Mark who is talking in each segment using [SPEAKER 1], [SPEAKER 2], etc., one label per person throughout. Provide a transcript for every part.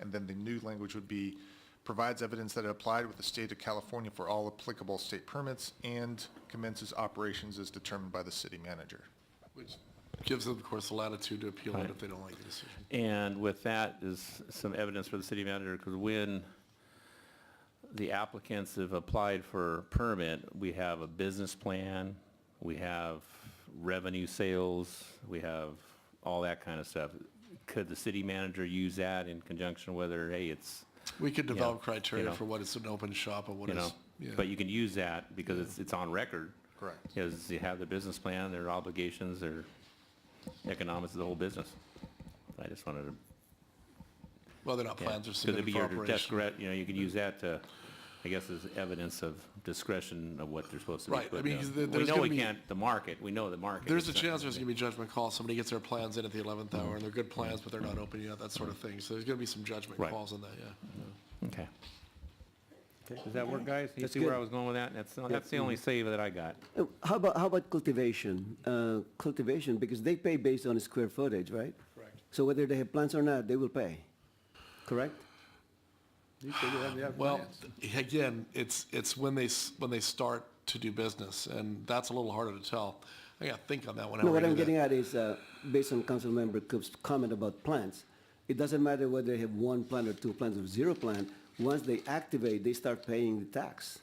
[SPEAKER 1] and then the new language would be, provides evidence that it applied with the state of California for all applicable state permits and commences operations as determined by the city manager.
[SPEAKER 2] which gives them, of course, the latitude to appeal it if they don't like the decision.
[SPEAKER 3] And with that is some evidence for the city manager, because when the applicants have applied for permit, we have a business plan, we have revenue sales, we have all that kind of stuff. Could the city manager use that in conjunction with, her? hey, it's,
[SPEAKER 2] We could develop
[SPEAKER 3] Yeah, you
[SPEAKER 2] criteria
[SPEAKER 3] know.
[SPEAKER 2] for what is an open shop and what
[SPEAKER 3] you know,
[SPEAKER 2] is, yeah.
[SPEAKER 3] but you can use that because it's, it's on record.
[SPEAKER 1] Correct.
[SPEAKER 3] Because you have the business plan, their obligations, their economics of the whole business. I just wanted to
[SPEAKER 2] whether or not
[SPEAKER 3] Yeah,
[SPEAKER 2] plans are
[SPEAKER 3] Because it'd
[SPEAKER 2] submitted
[SPEAKER 3] be
[SPEAKER 2] for
[SPEAKER 3] your
[SPEAKER 2] operation.
[SPEAKER 3] discretion, you know, you could use that to, I guess, as evidence of discretion of what they're supposed to be
[SPEAKER 2] Right, I
[SPEAKER 3] putting
[SPEAKER 2] mean,
[SPEAKER 3] down.
[SPEAKER 2] 'cause there-
[SPEAKER 3] We
[SPEAKER 2] there's
[SPEAKER 3] know
[SPEAKER 2] gonna
[SPEAKER 3] we
[SPEAKER 2] be-
[SPEAKER 3] can't, the market, we know the market.
[SPEAKER 2] There's a
[SPEAKER 3] It's not-
[SPEAKER 2] chance there's going to be judgment calls. Somebody gets their plans in at the 11th
[SPEAKER 3] Mm-hmm.
[SPEAKER 2] hour, and they're good plans, but they're not open yet, that sort of thing. So there's going to be some judgment
[SPEAKER 3] Right.
[SPEAKER 2] calls on that, yeah.
[SPEAKER 3] Okay. Does that work, guys? You
[SPEAKER 4] That's
[SPEAKER 3] see where
[SPEAKER 4] good.
[SPEAKER 3] I was going with that? That's, that's the only save that I got.
[SPEAKER 4] Uh, How about, how about cultivation? Uh, Cultivation, because they pay based on square footage, right?
[SPEAKER 2] Correct.
[SPEAKER 4] So whether they have plants or not, they will pay, correct?
[SPEAKER 2] Well, th- again, it's, it's when they, s- when they start to do business, and that's a little harder to tell. I got to think on that one. how
[SPEAKER 4] No,
[SPEAKER 2] we're
[SPEAKER 4] what
[SPEAKER 2] gonna
[SPEAKER 4] I'm
[SPEAKER 2] do that.
[SPEAKER 4] getting at is, uh, based on Councilmember Cook's comment about plants, it doesn't matter whether they have one plant or two plants or zero plant, once they activate, they start paying the tax.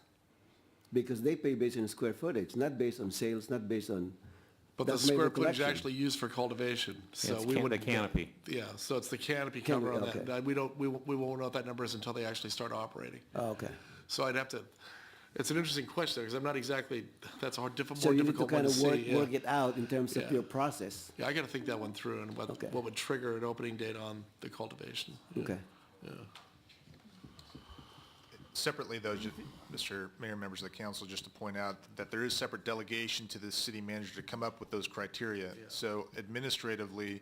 [SPEAKER 4] Because they pay based on square footage, not based on sales, not based on.
[SPEAKER 2] But the
[SPEAKER 4] that's made
[SPEAKER 2] square
[SPEAKER 4] with
[SPEAKER 2] footage
[SPEAKER 4] collection.
[SPEAKER 2] actually used for cultivation, so
[SPEAKER 3] It's
[SPEAKER 2] we
[SPEAKER 3] can- the
[SPEAKER 2] wouldn't.
[SPEAKER 3] canopy.
[SPEAKER 2] Yeah, so it's the canopy
[SPEAKER 4] Canopy,
[SPEAKER 2] cover on that.
[SPEAKER 4] okay.
[SPEAKER 2] Uh, We don't, we won't, we won't know what that number is until they actually start operating.
[SPEAKER 4] Oh, Okay.
[SPEAKER 2] So I'd have to, it's an interesting question, because I'm not exactly, that's a hard, difficult,
[SPEAKER 4] So
[SPEAKER 2] more
[SPEAKER 4] you need to
[SPEAKER 2] difficult one
[SPEAKER 4] kind
[SPEAKER 2] to
[SPEAKER 4] of work,
[SPEAKER 2] see. yeah.
[SPEAKER 4] work it out in terms of
[SPEAKER 2] Yeah.
[SPEAKER 4] your process.
[SPEAKER 2] Yeah, I gotta think that one through and what,
[SPEAKER 4] Okay.
[SPEAKER 2] what would trigger an opening date on the cultivation.
[SPEAKER 4] Okay.
[SPEAKER 1] Separately, though, ju- Mr. Mayor, members of the council, just to point out that there is separate delegation to the city manager to come up with those criteria. So administratively,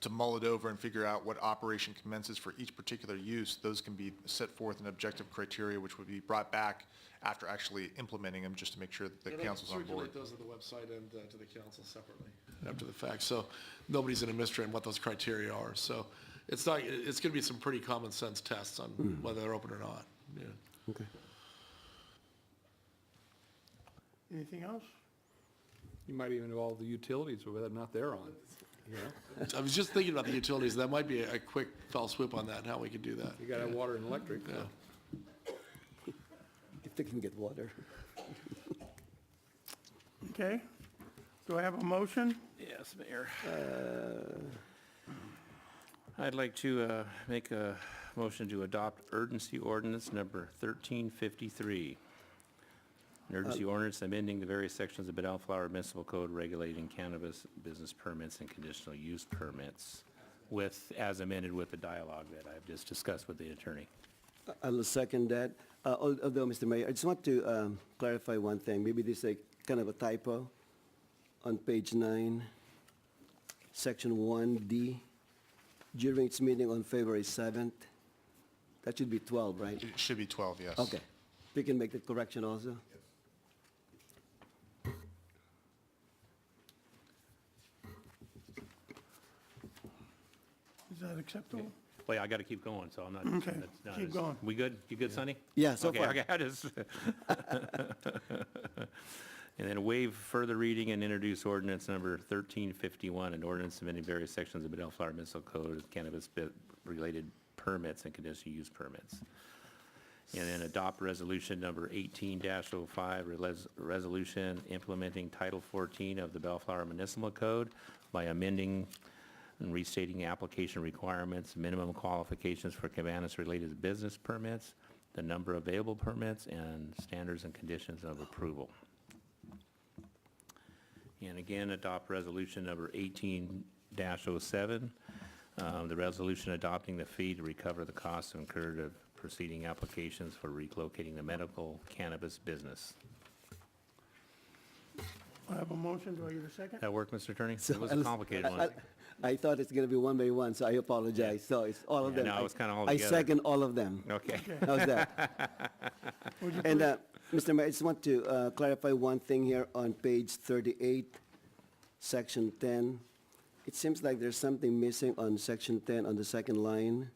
[SPEAKER 1] to mull it over and figure out what operation commences for each particular use, those can be set forth in objective criteria, which would be brought back after actually implementing them, just to make sure that the council's on board.
[SPEAKER 2] those on the website and uh, to the council separately. After the fact, so nobody's in a mystery on what those criteria are, so it's not, it's gonna be some pretty common sense tests on
[SPEAKER 4] Hmm.
[SPEAKER 2] whether they're open or not, yeah.
[SPEAKER 4] Okay.
[SPEAKER 5] Anything else? You might even involve the utilities, whether or not they're on.
[SPEAKER 2] I was just thinking about the utilities, that might be a a quick fell swoop on that, how we could do that.
[SPEAKER 5] You got to have water and electric.
[SPEAKER 2] Yeah.
[SPEAKER 4] If they can get water.
[SPEAKER 6] Okay. Do I have a motion?
[SPEAKER 3] Yes, Mayor. I'd like to uh, make a motion to adopt urgency ordinance number 1353. An urgency ordinance amending the various sections of Bellflower Municipal Code regulating cannabis business permits and conditional use permits with, as amended with the dialogue that I've just discussed with the attorney.
[SPEAKER 4] I'll second that. Uh, al- Although, Mr. Mayor, I just want to um, clarify one thing. Maybe this is a kind of a typo on page nine, section 1D, during its meeting on February 7th. That should be 12, right?
[SPEAKER 1] It should be 12, yes.
[SPEAKER 4] Okay. We can make that correction also?
[SPEAKER 6] Is that acceptable?
[SPEAKER 3] Well, yeah, I got to keep going, so I'm not.
[SPEAKER 6] Okay,
[SPEAKER 3] that's not-
[SPEAKER 6] keep going.
[SPEAKER 3] We good? You good, Sonny?
[SPEAKER 4] Yeah, so
[SPEAKER 3] Okay,
[SPEAKER 4] far.
[SPEAKER 3] Okay, I just. And then waive further reading and introduce ordinance number 1351, an ordinance amending various sections of the Bellflower Municipal Code with cannabis-related permits and conditional use permits. And then adopt resolution number 18-05, reles- resolution implementing Title 14 of the Bellflower Municipal Code by amending and restating application requirements, minimum qualifications for cannabis-related business permits, the number of available permits, and standards and conditions of approval. And again, adopt resolution number 18-07, um, the resolution adopting the fee to recover the costs incurred of proceeding applications for relocating the medical cannabis business.
[SPEAKER 6] I have a motion. Do I get a second?
[SPEAKER 3] That work, Mr. Attorney?
[SPEAKER 4] So
[SPEAKER 3] It was a
[SPEAKER 4] I'll-
[SPEAKER 3] complicated
[SPEAKER 4] I-
[SPEAKER 3] one.
[SPEAKER 4] I- I thought it's going to be one by one, so I apologize. So it's all of
[SPEAKER 3] Yeah,
[SPEAKER 4] them.
[SPEAKER 3] no,
[SPEAKER 4] I-
[SPEAKER 3] it was kinda all
[SPEAKER 4] I
[SPEAKER 3] together.
[SPEAKER 4] second all of them.
[SPEAKER 3] Okay.
[SPEAKER 4] How's that? And, uh, Mr. Mayor, I just want to uh, clarify one thing here on page 38, section 10. It seems like there's something missing on section 10 on the second line.